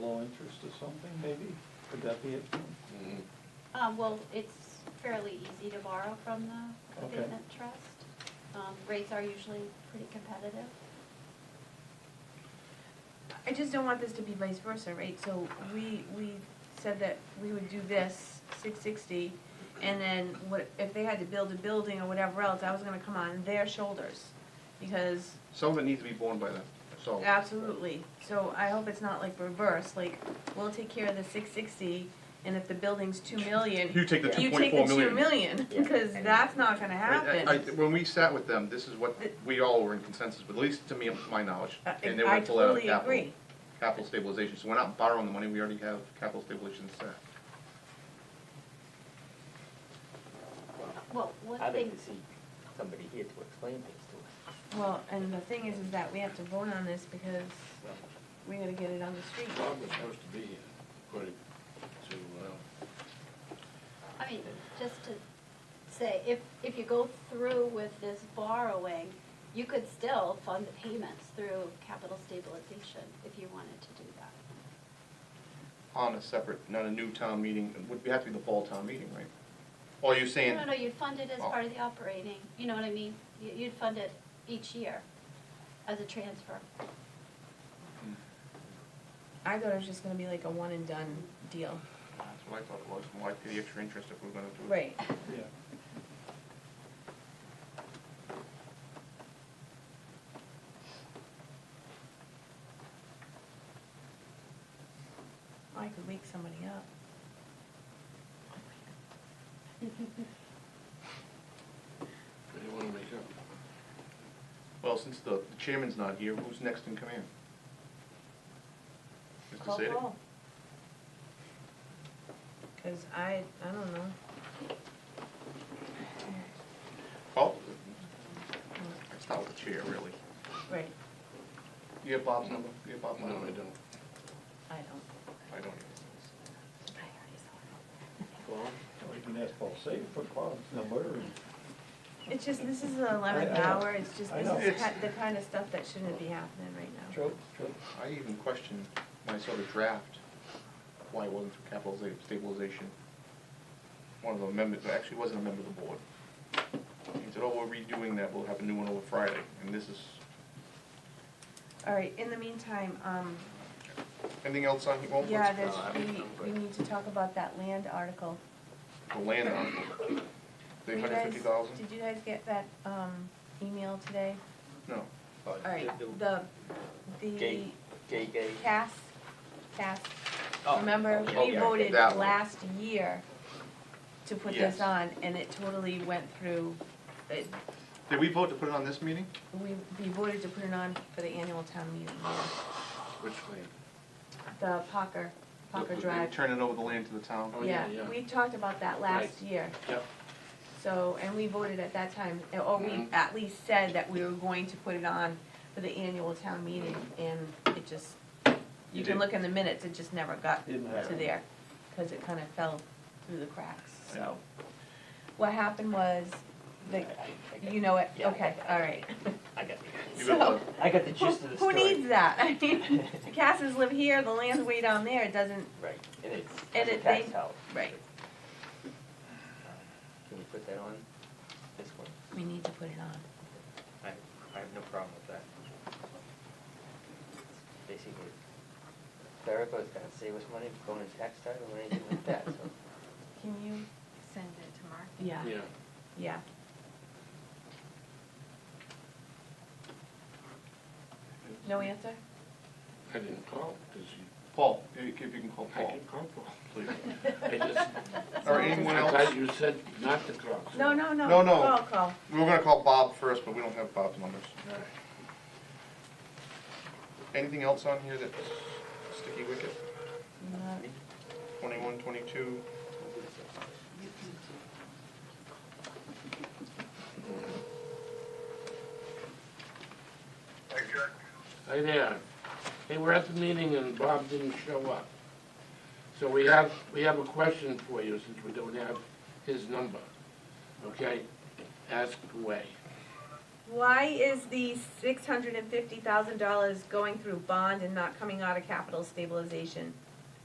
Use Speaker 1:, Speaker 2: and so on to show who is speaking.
Speaker 1: interest or something, maybe? Could that be it?
Speaker 2: Mhm.
Speaker 3: Um, well, it's fairly easy to borrow from the
Speaker 1: Okay.
Speaker 3: abatement trust. Um, rates are usually pretty competitive.
Speaker 4: I just don't want this to be vice versa, right? So we, we said that we would do this, six sixty, and then what, if they had to build a building or whatever else, that was gonna come on their shoulders. Because,
Speaker 2: Some of it needs to be borne by them, so.
Speaker 4: absolutely, so I hope it's not like reverse, like, we'll take care of the six sixty, and if the building's two million,
Speaker 2: You take the two
Speaker 4: you
Speaker 2: point
Speaker 4: take
Speaker 2: four
Speaker 4: the two
Speaker 2: million.
Speaker 4: million,
Speaker 5: Yeah.
Speaker 4: because that's not gonna
Speaker 2: I- I- I-
Speaker 4: happen.
Speaker 2: When we sat with them, this is what we all were in consensus, with, at least to me, my knowledge.
Speaker 4: I-
Speaker 2: and they
Speaker 4: Uh, I
Speaker 2: went full out of
Speaker 4: totally
Speaker 2: capital-
Speaker 4: agree.
Speaker 2: Capital stabilization, so we're not borrowing the money, we already have capital stabilization set.
Speaker 3: Well, one
Speaker 5: I'd
Speaker 3: thing,
Speaker 5: like to see somebody here to explain things to us.
Speaker 4: Well, and the thing is, is that we have to vote on this because
Speaker 5: Well,
Speaker 4: we gotta get it on the street.
Speaker 6: Bob was supposed to be here, according to, uh,
Speaker 3: I mean, just to say, if, if you go through with this borrowing, you could still fund the payments through capital stabilization if you wanted to do that.
Speaker 2: On a separate, not a new town meeting, it would have to be the fall town meeting, right? Or you saying,
Speaker 3: No, no, no, you'd fund it as
Speaker 2: Oh.
Speaker 3: part of the operating, you know what I mean? You- You'd fund it each year as a transfer.
Speaker 4: I thought it was just gonna be like a one and done deal.
Speaker 2: that's what I thought it was, why pay the extra interest if we're gonna do it?
Speaker 4: Right.
Speaker 1: Yeah.
Speaker 4: I could wake somebody up.
Speaker 6: anyone wake up?
Speaker 2: Well, since the the chairman's not here, who's next in command? Mr.
Speaker 4: Call
Speaker 2: Sadik?
Speaker 4: Paul. Cause I, I don't know.
Speaker 2: Paul? It's not with the chair, really.
Speaker 4: Right,
Speaker 2: You have Bob's number? You have Bob's
Speaker 6: No,
Speaker 2: number?
Speaker 6: I don't.
Speaker 4: I don't.
Speaker 2: I don't.
Speaker 1: Or you can ask Paul Safe for Paul's number. and-
Speaker 4: It's just, this is the
Speaker 1: I
Speaker 4: eleventh
Speaker 1: know.
Speaker 4: hour, it's just,
Speaker 1: I
Speaker 4: this
Speaker 1: know.
Speaker 4: is
Speaker 2: It's-
Speaker 4: ki- the kind of stuff that shouldn't be happening right now.
Speaker 1: True, true.
Speaker 2: I even questioned when I saw the draft, why it wasn't through capital sta- stabilization. One of the members, actually wasn't a member of the board. He said, oh, we're redoing that, we'll have a new one over Friday, and this is,
Speaker 4: All right, in the meantime, um,
Speaker 2: anything else on, well,
Speaker 4: yeah,
Speaker 2: let's,
Speaker 4: there's,
Speaker 5: uh, I mean, I'm
Speaker 4: we, we
Speaker 5: good.
Speaker 4: need to talk about that land article.
Speaker 2: the land article.
Speaker 4: Were
Speaker 2: The
Speaker 4: you
Speaker 2: hundred
Speaker 4: guys-
Speaker 2: fifty thousand?
Speaker 4: Did you guys get that, um, email today?
Speaker 2: No.
Speaker 4: All right, the, the
Speaker 5: Gay, gay, gay.
Speaker 4: Cass, Cass,
Speaker 5: Oh,
Speaker 4: remember, we
Speaker 2: okay.
Speaker 4: voted
Speaker 2: That one.
Speaker 4: last year to put
Speaker 2: Yes.
Speaker 4: this on, and it totally went through, it,
Speaker 2: Did we vote to put it on this meeting?
Speaker 4: we, we voted to put it on for the annual town meeting,
Speaker 6: Which lane?
Speaker 4: the Parker, Parker
Speaker 2: They
Speaker 4: Drive.
Speaker 2: Turning over the land to the town?
Speaker 6: Oh, yeah, yeah.
Speaker 4: we talked about that last year,
Speaker 6: Yep.
Speaker 4: so, and we voted at that time, or we
Speaker 6: Mhm.
Speaker 4: at least said that we were going to put it on for the annual town meeting, and it just, you
Speaker 2: You
Speaker 4: can
Speaker 2: did.
Speaker 4: look in the minutes, it just never got
Speaker 1: Didn't
Speaker 4: to
Speaker 1: happen.
Speaker 4: there, because it kind of fell through the cracks,
Speaker 2: I
Speaker 4: so.
Speaker 2: know.
Speaker 4: What happened was, the,
Speaker 5: I- I got-
Speaker 4: you know it,
Speaker 5: yeah, I
Speaker 4: okay,
Speaker 5: got-
Speaker 4: all right.
Speaker 5: I got the,
Speaker 2: You got
Speaker 4: So-
Speaker 2: one?
Speaker 5: I got the
Speaker 4: Who,
Speaker 5: gist of the
Speaker 4: who
Speaker 5: story.
Speaker 4: needs that? I mean, the Casses live here, the land's way down there, it doesn't,
Speaker 5: Right, and it's,
Speaker 4: And
Speaker 5: it's a
Speaker 4: it-
Speaker 5: tax
Speaker 4: they-
Speaker 5: house. Uh,
Speaker 4: right.
Speaker 5: Can we put that on this one?
Speaker 4: we need to put it on.
Speaker 5: I, I have no problem with that. Basically, Clerico's gonna save us money going to tax title or anything like that, so.
Speaker 4: Can you?
Speaker 7: send it to Mark.
Speaker 4: Yeah,
Speaker 6: Yeah,
Speaker 4: yeah. No answer?
Speaker 6: I didn't call, does he?
Speaker 2: Paul, if you if you can call
Speaker 6: I
Speaker 2: Paul,
Speaker 6: didn't call Paul.
Speaker 2: please.
Speaker 6: I just,
Speaker 2: Or anyone
Speaker 6: I
Speaker 2: else?
Speaker 6: thought you said not to call. so-
Speaker 4: No, no, no.
Speaker 2: No, no.
Speaker 4: Call, call.
Speaker 2: We were gonna call Bob first, but we don't have Bob's numbers.
Speaker 6: All right.
Speaker 2: Anything else on here that's sticky wicket?
Speaker 4: No.
Speaker 2: Twenty-one, twenty-two?
Speaker 6: Hi there. Hey, we're at the meeting and Bob didn't show up. So we have, we have a question for you since we don't have his number. Okay? Ask away.
Speaker 4: Why is the six hundred and fifty thousand dollars going through bond and not coming out of capital stabilization?